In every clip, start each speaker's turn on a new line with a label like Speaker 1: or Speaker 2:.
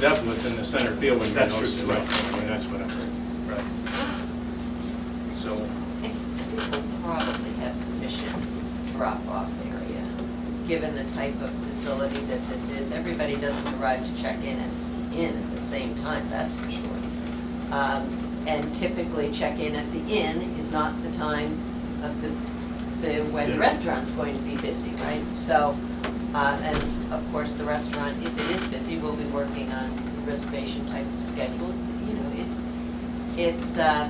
Speaker 1: depth within the center field when you're
Speaker 2: That's true,
Speaker 1: most
Speaker 2: too.
Speaker 1: right. I mean, that's what I'm,
Speaker 2: Right. So,
Speaker 3: We'll probably have sufficient drop-off area, given the type of facility that this is. Everybody doesn't arrive to check in and in at the same time, that's for sure. Um, And typically, check-in at the inn is not the time of the, the, when the
Speaker 2: Yeah.
Speaker 3: restaurant's going to be busy, right? So, uh, and of course, the restaurant, if it is busy, will be working on reservation type of schedule, you know, it, it's, uh,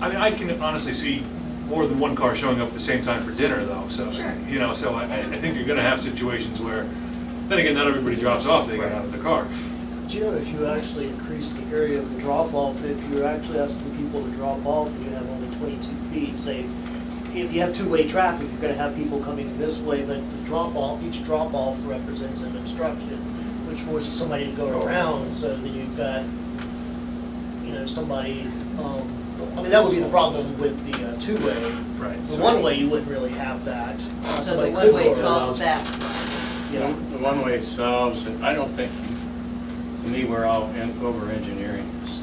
Speaker 2: I mean, I can honestly see more than one car showing up at the same time for dinner though, so.
Speaker 3: Sure.
Speaker 2: You know, so I, I think you're gonna have situations where, then again, not everybody drops off, they get out of the car.
Speaker 4: Jim, if you actually increase the area of the drop-off, if you're actually asking people to drop off and you have only twenty-two feet, say, if you have two-way traffic, you're gonna have people coming this way, but the drop-off, each drop-off represents an obstruction, which forces somebody to go around, so that you've got, you know, somebody, um, I mean, that would be the problem with the uh, two-way.
Speaker 2: Right.
Speaker 4: The one-way, you wouldn't really have that. Uh,
Speaker 3: so the
Speaker 4: somebody could
Speaker 3: one-way
Speaker 4: go
Speaker 3: solves
Speaker 4: around.
Speaker 3: that
Speaker 4: Yeah.
Speaker 1: saying. The one-way solves, it. I don't think, to me, we're all in- over-engineering this.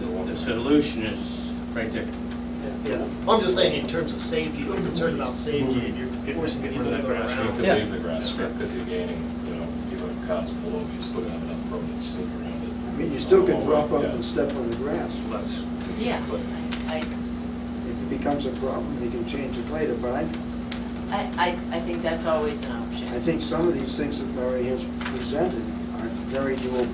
Speaker 1: The- The solution is right there.
Speaker 4: Yeah, I'm just saying in terms of safety, you're concerned about safety and you're forcing
Speaker 2: Get
Speaker 4: people
Speaker 2: rid of
Speaker 4: to
Speaker 2: that
Speaker 4: go
Speaker 2: grass
Speaker 4: around.
Speaker 5: You could
Speaker 1: Yeah.
Speaker 5: leave the grass strip if you're gaining, you know, even if cars pull over, you still have enough room to sneak around it.
Speaker 6: I mean, you still can drop off
Speaker 5: Yeah.
Speaker 6: and step on the grass.
Speaker 2: Oh, Let's,
Speaker 3: Yeah, I,
Speaker 6: If it becomes a problem, you can change it later, but I,
Speaker 3: I, I, I think that's always an
Speaker 6: I
Speaker 3: option.
Speaker 6: think some of these things that Larry has presented are very doable.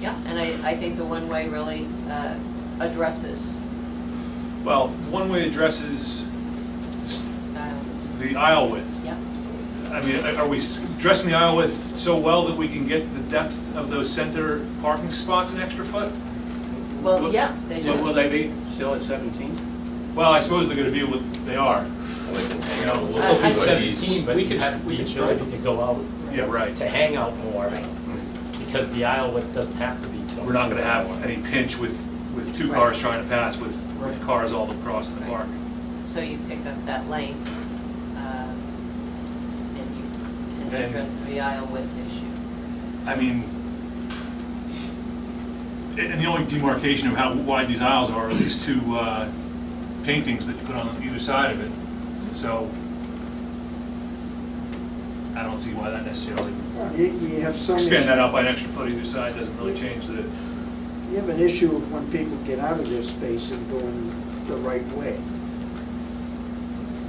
Speaker 3: Yeah, and I, I think the one-way really uh, addresses,
Speaker 2: well, one-way addresses
Speaker 3: um,
Speaker 2: the aisle width.
Speaker 3: yeah,
Speaker 2: I mean, are we dressing the aisle width so well that we can get the depth of those center parking spots an extra foot?
Speaker 3: well,
Speaker 1: Look-
Speaker 3: yeah, they
Speaker 1: Will will
Speaker 3: do.
Speaker 1: they be still at 17?
Speaker 2: Well, I suppose they're gonna be what they are.
Speaker 5: And they can hang out a
Speaker 3: I- I-
Speaker 5: little
Speaker 7: Uh,
Speaker 5: bit. but he's-
Speaker 8: Seventeen,
Speaker 7: But
Speaker 8: we
Speaker 7: you
Speaker 8: could,
Speaker 7: have
Speaker 8: we
Speaker 7: the
Speaker 8: could try
Speaker 7: ability
Speaker 8: to
Speaker 7: to go out,
Speaker 2: Yeah, right.
Speaker 7: to hang out more, because the aisle width doesn't have to be 22.
Speaker 2: We're not gonna have any pinch with, with two cars trying to pass, with with cars all across the park.
Speaker 3: So you pick up that length, um, and you, and
Speaker 2: And-
Speaker 3: address the aisle width issue.
Speaker 2: I mean, and and the only demarcation of how wide these aisles are are these two uh, paintings that you put on either side of it. So I don't see why that necessarily,
Speaker 6: You, you have some,
Speaker 2: expand that
Speaker 6: you
Speaker 2: out by an extra foot either side doesn't really change the,
Speaker 6: have an issue of when people get out of their space and going the right way.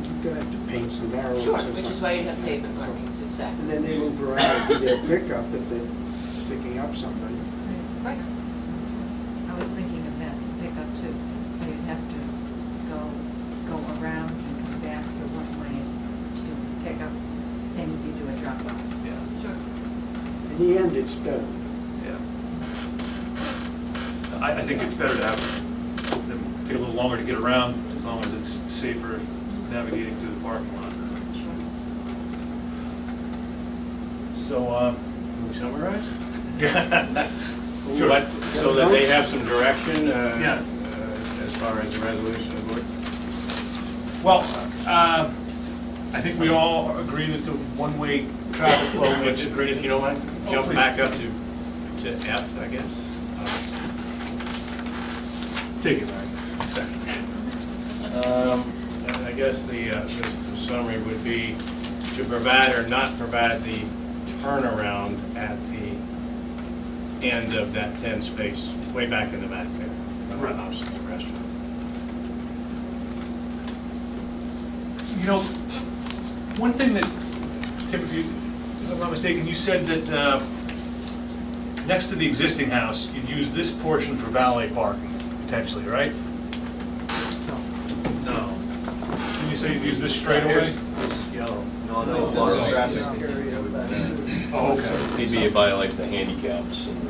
Speaker 6: You're gonna have to paint some arrows or
Speaker 3: Sure,
Speaker 6: something.
Speaker 3: which is why you have pavement markings,
Speaker 6: And
Speaker 3: exactly.
Speaker 6: then they move around to their pickup if they're picking up somebody.
Speaker 3: Right,
Speaker 9: I was thinking of that pickup too, so you'd have to go, go around and come back the one way to do the pickup, same as you do a drop off.
Speaker 2: yeah,
Speaker 3: sure.
Speaker 6: In the end, it's better.
Speaker 2: yeah. I, I think it's better to have them take a little longer to get around, as long as it's safer navigating through the parking lot. So, um,
Speaker 1: Can we summarize?
Speaker 2: Sure.
Speaker 1: But, so that they have some direction, uh,
Speaker 2: Yeah.
Speaker 1: uh, as far as the resolution of the board?
Speaker 2: Well, uh, I think we all agree that the one-way traffic flow
Speaker 1: Well,
Speaker 2: makes
Speaker 1: which,
Speaker 2: it
Speaker 1: if you don't mind,
Speaker 2: Oh,
Speaker 1: jump
Speaker 2: please.
Speaker 1: back up to, to F, I guess.
Speaker 2: Take it,
Speaker 1: Um, and I guess the, uh, the the summary would be to provide or not provide the turnaround at the end of that ten space, way back in the back there.
Speaker 2: Right.
Speaker 1: Opposite the restaurant.
Speaker 2: You know, one thing that, Tim, if you, if I'm not mistaken, you said that uh, next to the existing house, you'd use this portion for valet parking potentially, right? No. Didn't you say you'd use this straightaway?
Speaker 1: Here's- here's yellow.
Speaker 4: I think this is this area of that.
Speaker 2: Oh, okay.
Speaker 5: He'd be by like the handicaps and.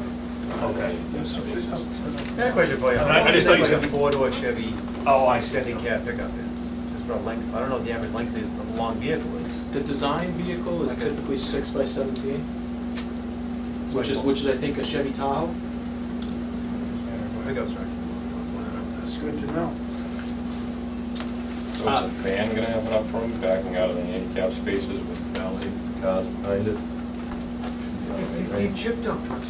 Speaker 2: Okay.
Speaker 10: I have a question for you.
Speaker 2: I mean, I- I just thought you said-
Speaker 10: Like a four-door Chevy
Speaker 2: Oh, I see.
Speaker 10: extended cab pickup is, just for a length, I don't know what the average length is of a long vehicle is.
Speaker 7: The design vehicle is
Speaker 10: Okay.
Speaker 7: typically six by seventeen, which is, which is I think a Chevy Tahoe.
Speaker 10: Pickup truck.
Speaker 6: That's good to know.
Speaker 5: So is the van gonna have enough room backing out of the handicap spaces with valet cars behind it? You know,
Speaker 9: Because
Speaker 5: I mean,
Speaker 9: these
Speaker 5: These chip dump trucks